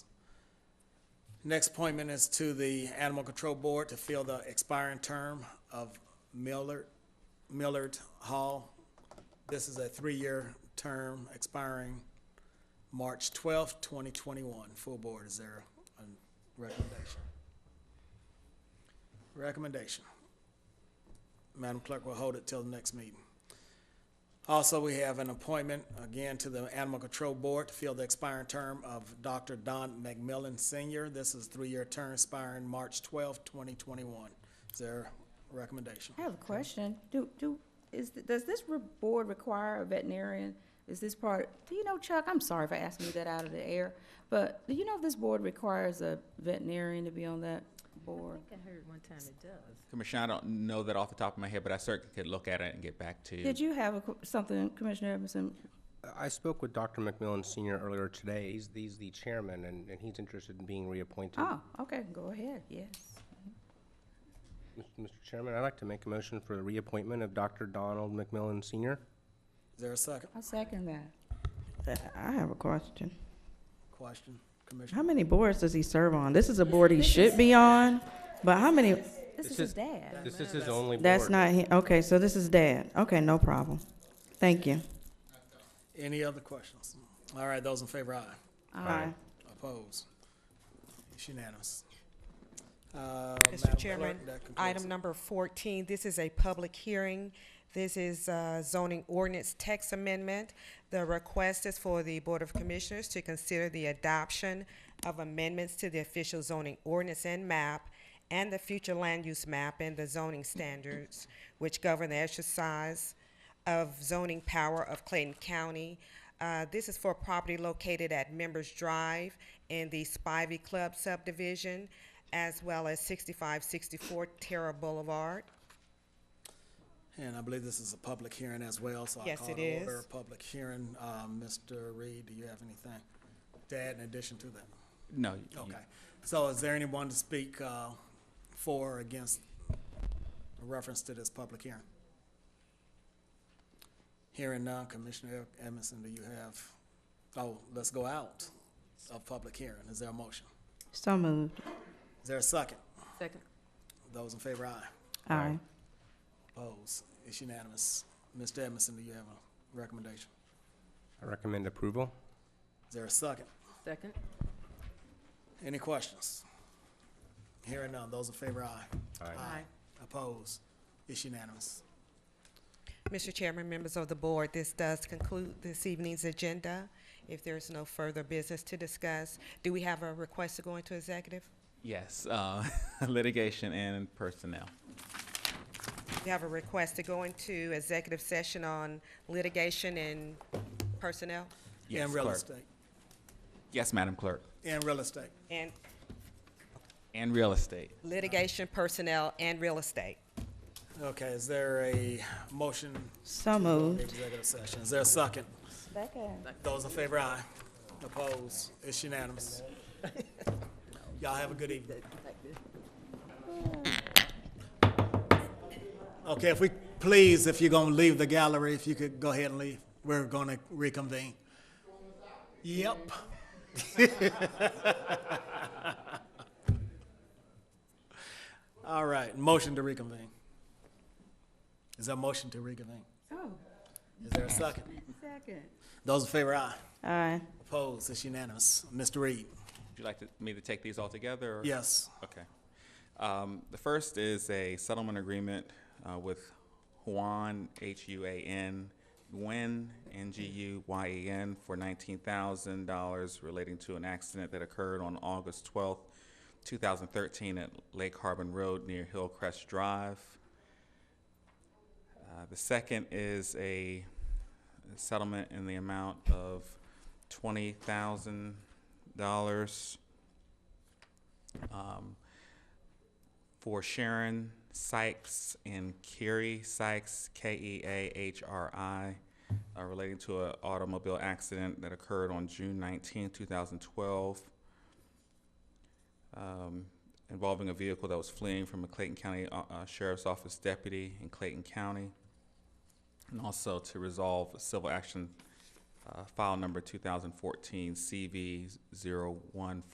Next appointment is to the Animal Control Board to fill the expiring term of Millard, Millard Hall. This is a three-year term expiring March twelfth, twenty twenty-one. Full board, is there a recommendation? Recommendation. Madam Clerk will hold it till the next meeting. Also, we have an appointment, again, to the Animal Control Board to fill the expiring term of Dr. Don McMillan Senior. This is a three-year term expiring March twelfth, twenty twenty-one. Is there a recommendation? I have a question. Do, do, is, th- does this re- board require a veterinarian? Is this part, do you know, Chuck, I'm sorry for asking you that out of the air, but do you know if this board requires a veterinarian to be on that board? I think I heard one time it does. Commissioner, I don't know that off the top of my head, but I certainly could look at it and get back to you. Did you have a qu- something, Commissioner Edmondson? I spoke with Dr. McMillan Senior earlier today. He's, he's the chairman, and, and he's interested in being reappointed. Oh, okay, go ahead, yes. Mis- Mr. Chairman, I'd like to make a motion for the reappointment of Dr. Donald McMillan Senior. Is there a second I second that. I have a question. question, How Commissioner? many boards does he serve on? This is a board he should be on, but how many? This is This his is- dad. This is his only board. That's not him. Okay, so this is dad. Okay, no problem. Thank you. Any other questions? All right, those in favor, aye. Aye. Opposed? It's unanimous. Uh, Madam Mr. Clerk, Chairman, that concludes item it. number 14, this is a public hearing. This is uh, zoning ordinance text amendment. The request is for the Board of Commissioners to consider the adoption of amendments to the official zoning ordinance and map and the future land use map and the zoning standards which govern the exercise of zoning power of Clayton County. Uh, This is for property located at Members Drive in the Spivey Club subdivision, as well as 6564 Terra Boulevard. And I believe this is a public hearing as well, so I Yes, call it it order is. a public hearing. Um, Mr. Reed, do you have anything to add in addition to that? No. you- Okay. So is there anyone to speak uh, for or against a reference to this public hearing? Hearing none, Commissioner Edmondson, do you have, oh, let's go out of public hearing. Is there a motion? So moved. Is there a second? Second. Those in favor, aye. Aye. Opposed? It's unanimous. Mr. Edmondson, do you have a recommendation? I recommend approval. Is there a second? Second. Any questions? Hearing none, those in favor, aye. Aye. Opposed? It's unanimous. Mr. Chairman, members of the board, this does conclude this evening's agenda. If there's no further business to discuss, do we have a request to go into executive? Yes, uh, litigation and personnel. We have a request to go into executive session on litigation and personnel Yes, And real clerk. estate, Yes, Madam Clerk. and real estate. and And real estate. litigation, personnel, and real estate. Okay, is there a motion So for moved. executive session? Is there a second? Second. Those in favor, aye. Opposed? It's unanimous. Y'all have a good evening. Okay, if we, please, if you're gonna leave the gallery, if you could go ahead and leave, we're gonna reconvene. Yep. All right, motion to reconvene. Is there a motion to reconvene? Oh, Is there a second? second. Those in favor, aye. Aye. Opposed, it's unanimous. Mr. Reed? Would you like to- me to take these all together? or- Yes. Okay. Um, The first is a settlement agreement uh, with Huan, H-U-A-N, Nguyen, N-G-U-Y-E-N, E for $19,000 relating to an accident that occurred on August 12th, 2013 at Lake Harbin Road near Hillcrest Drive. Uh, The second is a settlement in the amount of $20,000 um, for Sharon Sykes and Kerry Sykes, K E A H R I, uh, relating to an automobile accident that occurred on June 19, 2012, um, involving a vehicle that was fleeing from a Clayton County uh, uh, Sheriff's Office deputy in Clayton County, and also to resolve civil action uh, file number 2014 CV 014.